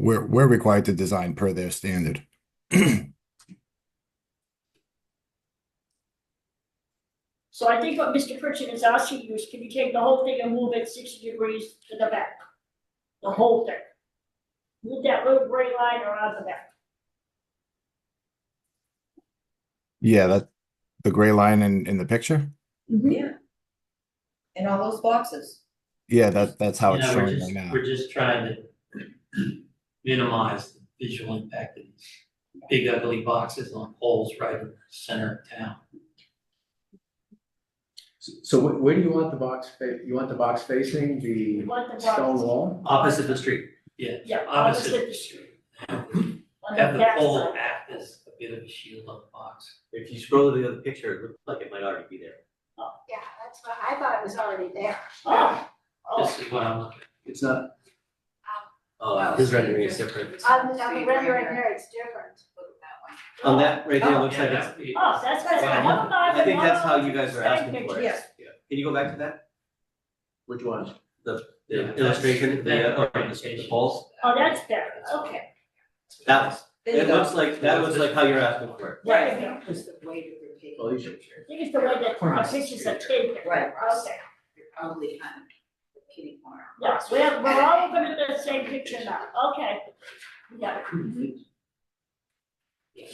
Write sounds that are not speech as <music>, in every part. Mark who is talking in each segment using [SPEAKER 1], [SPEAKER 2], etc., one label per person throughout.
[SPEAKER 1] we're, we're required to design per their standard. <clears throat>
[SPEAKER 2] So I think what Mr. Pritchard is asking you is can you take the whole thing and move it sixty degrees to the back? The whole thing. Move that little gray line around the back.
[SPEAKER 1] Yeah, that, the gray line in, in the picture?
[SPEAKER 3] Yeah. And all those boxes.
[SPEAKER 1] Yeah, that, that's how it's
[SPEAKER 4] Yeah, we're
[SPEAKER 1] showing
[SPEAKER 4] just-
[SPEAKER 1] right now.
[SPEAKER 4] We're just trying to <clears throat> minimize the visual impact of these big ugly boxes on poles right in the center of town.
[SPEAKER 5] So- So where, where do you want the box, fa- you want the box facing
[SPEAKER 2] You
[SPEAKER 5] the
[SPEAKER 2] want the
[SPEAKER 5] stone
[SPEAKER 2] box,
[SPEAKER 5] wall?
[SPEAKER 4] Opposite the street, yeah.
[SPEAKER 2] yeah,
[SPEAKER 4] opposite.
[SPEAKER 2] opposite the street,
[SPEAKER 4] Have
[SPEAKER 2] on the
[SPEAKER 4] the
[SPEAKER 2] back
[SPEAKER 4] pole
[SPEAKER 2] side.
[SPEAKER 4] act as a bit of a shield on the box.
[SPEAKER 6] If you scroll to the other picture, it looks like it might already be there.
[SPEAKER 7] Yeah, that's what, I thought it was already there.
[SPEAKER 2] Oh, oh,
[SPEAKER 4] This is what I'm looking
[SPEAKER 5] It's not,
[SPEAKER 6] Oh, this rendering is different.
[SPEAKER 7] On the, on
[SPEAKER 3] See, right
[SPEAKER 7] the rendering
[SPEAKER 3] here.
[SPEAKER 7] here, it's different.
[SPEAKER 6] On that right there, it
[SPEAKER 4] at.
[SPEAKER 6] looks like it's,
[SPEAKER 2] oh, that's, that's,
[SPEAKER 6] Well,
[SPEAKER 2] I'm not
[SPEAKER 6] I
[SPEAKER 2] even
[SPEAKER 6] think
[SPEAKER 2] one
[SPEAKER 6] that's
[SPEAKER 2] of
[SPEAKER 6] how
[SPEAKER 2] those
[SPEAKER 6] you guys are asking for it.
[SPEAKER 3] Yeah.
[SPEAKER 6] Can you go back to that?
[SPEAKER 5] which one?
[SPEAKER 4] Yeah,
[SPEAKER 6] The illustration, the, uh,
[SPEAKER 4] that's-
[SPEAKER 6] oh, the- the balls?
[SPEAKER 2] Oh, that's better, okay.
[SPEAKER 6] That was,
[SPEAKER 3] There you
[SPEAKER 6] it
[SPEAKER 3] go.
[SPEAKER 6] looks like, that looks like how you're asking for it.
[SPEAKER 2] There you go.
[SPEAKER 3] That was the way to repeat.
[SPEAKER 5] Well, Oh, these are-
[SPEAKER 2] I think it's the way that our pictures are taken.
[SPEAKER 3] Right.
[SPEAKER 2] Okay,
[SPEAKER 3] You're probably kind of repeating more.
[SPEAKER 2] yes, we have, we're all looking at the same picture now, okay. Yeah,
[SPEAKER 4] at.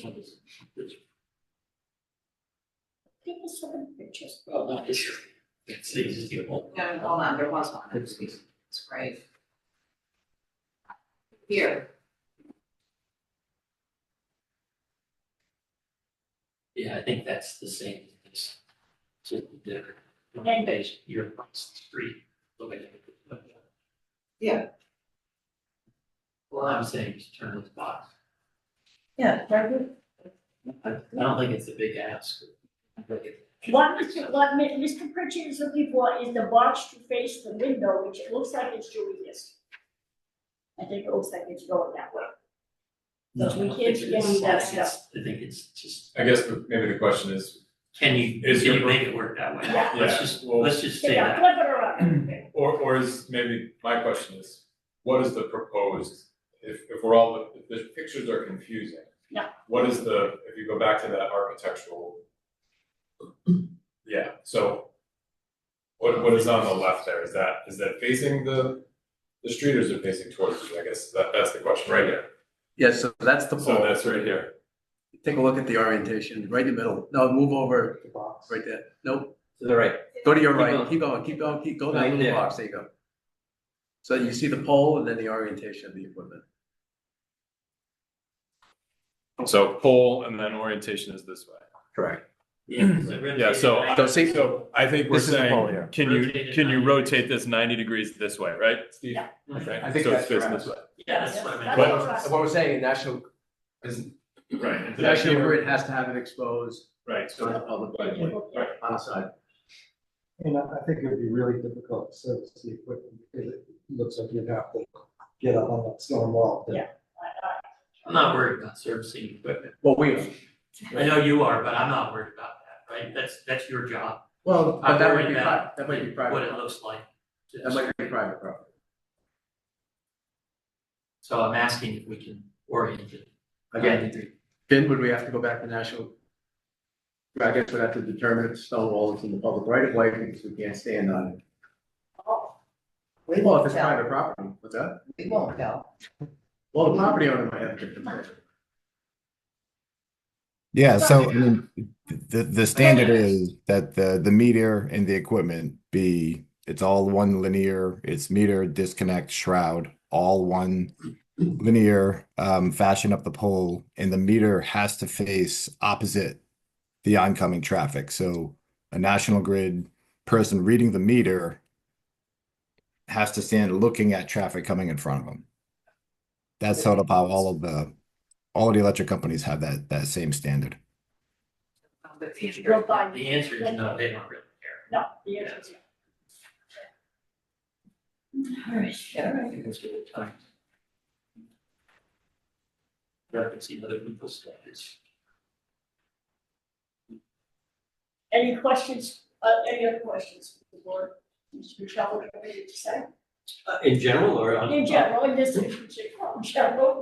[SPEAKER 2] give us some pictures.
[SPEAKER 4] Well, not this. It's the existing pole.
[SPEAKER 3] No, hold on, there was one, it's, it's great. Here,
[SPEAKER 4] Yeah, I think that's the same. as To the,
[SPEAKER 2] Okay.
[SPEAKER 4] page, you're across the street. look at it. Well, I'm saying just turn this box.
[SPEAKER 3] yeah, very good.
[SPEAKER 4] I I don't think it's a big ask. I think it-
[SPEAKER 2] What Mr. what Mi- Mr. Pritchard is looking for is the box to face the window, which it looks like it's doing this. I think it looks like it's going that way.
[SPEAKER 4] No, I don't
[SPEAKER 2] We
[SPEAKER 4] think
[SPEAKER 2] can't
[SPEAKER 4] it's-
[SPEAKER 2] change that stuff.
[SPEAKER 4] I think it's just,
[SPEAKER 8] I guess the- maybe the question is,
[SPEAKER 4] can you,
[SPEAKER 8] Is
[SPEAKER 4] can
[SPEAKER 8] your-
[SPEAKER 4] you make it work that way?
[SPEAKER 2] Yeah.
[SPEAKER 4] Let's
[SPEAKER 8] yeah,
[SPEAKER 4] just,
[SPEAKER 8] well,
[SPEAKER 4] let's just say
[SPEAKER 2] Yeah,
[SPEAKER 4] that.
[SPEAKER 2] flip it around.
[SPEAKER 8] or, or is maybe, my question is, what is the proposed? If, if we're all, if the pictures are confusing.
[SPEAKER 2] Yeah.
[SPEAKER 8] What is the, if you go back to that architectural? Yeah, so. What, what is on the left there? Is that, is that facing the, the street or is it facing towards you? I guess that, that's the question right here.
[SPEAKER 5] Yeah, so that's the
[SPEAKER 8] So
[SPEAKER 5] pole.
[SPEAKER 8] that's right here.
[SPEAKER 5] Take a look at the orientation, right in the middle. No, move over, right there. Nope,
[SPEAKER 6] To the right.
[SPEAKER 5] go to your
[SPEAKER 6] Keep
[SPEAKER 5] right.
[SPEAKER 6] going.
[SPEAKER 5] Keep going, keep going, keep, go down
[SPEAKER 6] Right
[SPEAKER 5] to the
[SPEAKER 6] there.
[SPEAKER 5] box. There you go. So you see the pole and then the orientation of the equipment.
[SPEAKER 8] So pole and then orientation is this way.
[SPEAKER 5] Correct.
[SPEAKER 8] Yeah, so,
[SPEAKER 5] So see,
[SPEAKER 8] so I think we're
[SPEAKER 5] This is the pole
[SPEAKER 8] saying,
[SPEAKER 5] here.
[SPEAKER 8] can you,
[SPEAKER 4] Rotate it
[SPEAKER 8] can you
[SPEAKER 4] 90
[SPEAKER 8] rotate this ninety degrees this way, right, Steve?
[SPEAKER 2] Yeah.
[SPEAKER 8] Okay,
[SPEAKER 5] I think
[SPEAKER 8] so
[SPEAKER 5] that's
[SPEAKER 8] it's facing
[SPEAKER 5] correct.
[SPEAKER 8] this way.
[SPEAKER 4] Yeah, <clears throat> that's what I meant.
[SPEAKER 2] That's
[SPEAKER 8] But-
[SPEAKER 2] what I said.
[SPEAKER 5] what we're saying, national,
[SPEAKER 8] Right.
[SPEAKER 5] the national grid has to have it exposed
[SPEAKER 8] Right,
[SPEAKER 5] to the public
[SPEAKER 2] Right,
[SPEAKER 5] right away,
[SPEAKER 2] right.
[SPEAKER 5] on the side.
[SPEAKER 9] And I, I think it would be really difficult to service the equipment because it looks like you'd have to get up on that stone wall. to-
[SPEAKER 2] Yeah. I- I-
[SPEAKER 4] I'm not worried about servicing equipment.
[SPEAKER 5] Well, we,
[SPEAKER 4] I know you are, but I'm not worried about that, right? That's, that's your job.
[SPEAKER 5] well,
[SPEAKER 4] I'm
[SPEAKER 5] but Uh, that might
[SPEAKER 4] worried
[SPEAKER 5] be, pri-
[SPEAKER 4] about
[SPEAKER 5] that might be
[SPEAKER 4] What it
[SPEAKER 5] private.
[SPEAKER 4] looks like. to
[SPEAKER 5] That might be private property.
[SPEAKER 4] So I'm asking if we can orient it.
[SPEAKER 5] Again, then would we have to go back to national? I guess we'd have to determine if stone wall is in the public right of way because we can't stand on
[SPEAKER 3] Oh,
[SPEAKER 5] it.
[SPEAKER 3] We
[SPEAKER 5] Well, if
[SPEAKER 3] won't
[SPEAKER 5] it's
[SPEAKER 3] tell,
[SPEAKER 5] private property, what's that?
[SPEAKER 3] we won't tell.
[SPEAKER 5] Well, the property owner might have a different. opinion.
[SPEAKER 1] Yeah, so I
[SPEAKER 2] Right.
[SPEAKER 1] mean, the, the standard is that the, the meter and the equipment be, it's all one linear, it's meter, disconnect, shroud, all one linear, um, fashion up the pole, and the meter has to face opposite the oncoming traffic. So a national grid person reading the meter has to stand looking at traffic coming in front of them. That's sort of how all of the, all of the electric companies have that, that same standard.
[SPEAKER 3] But
[SPEAKER 2] You should go by
[SPEAKER 4] The answer is no, they don't really care.
[SPEAKER 2] No, the answer is
[SPEAKER 4] I think it's good time. Referencing other people's standards.
[SPEAKER 2] no. Any questions, uh, any other questions, before Mr. Michelle, what do you have to say?
[SPEAKER 6] Uh, in general or on?
[SPEAKER 4] Uh,
[SPEAKER 2] In general, in this, in general,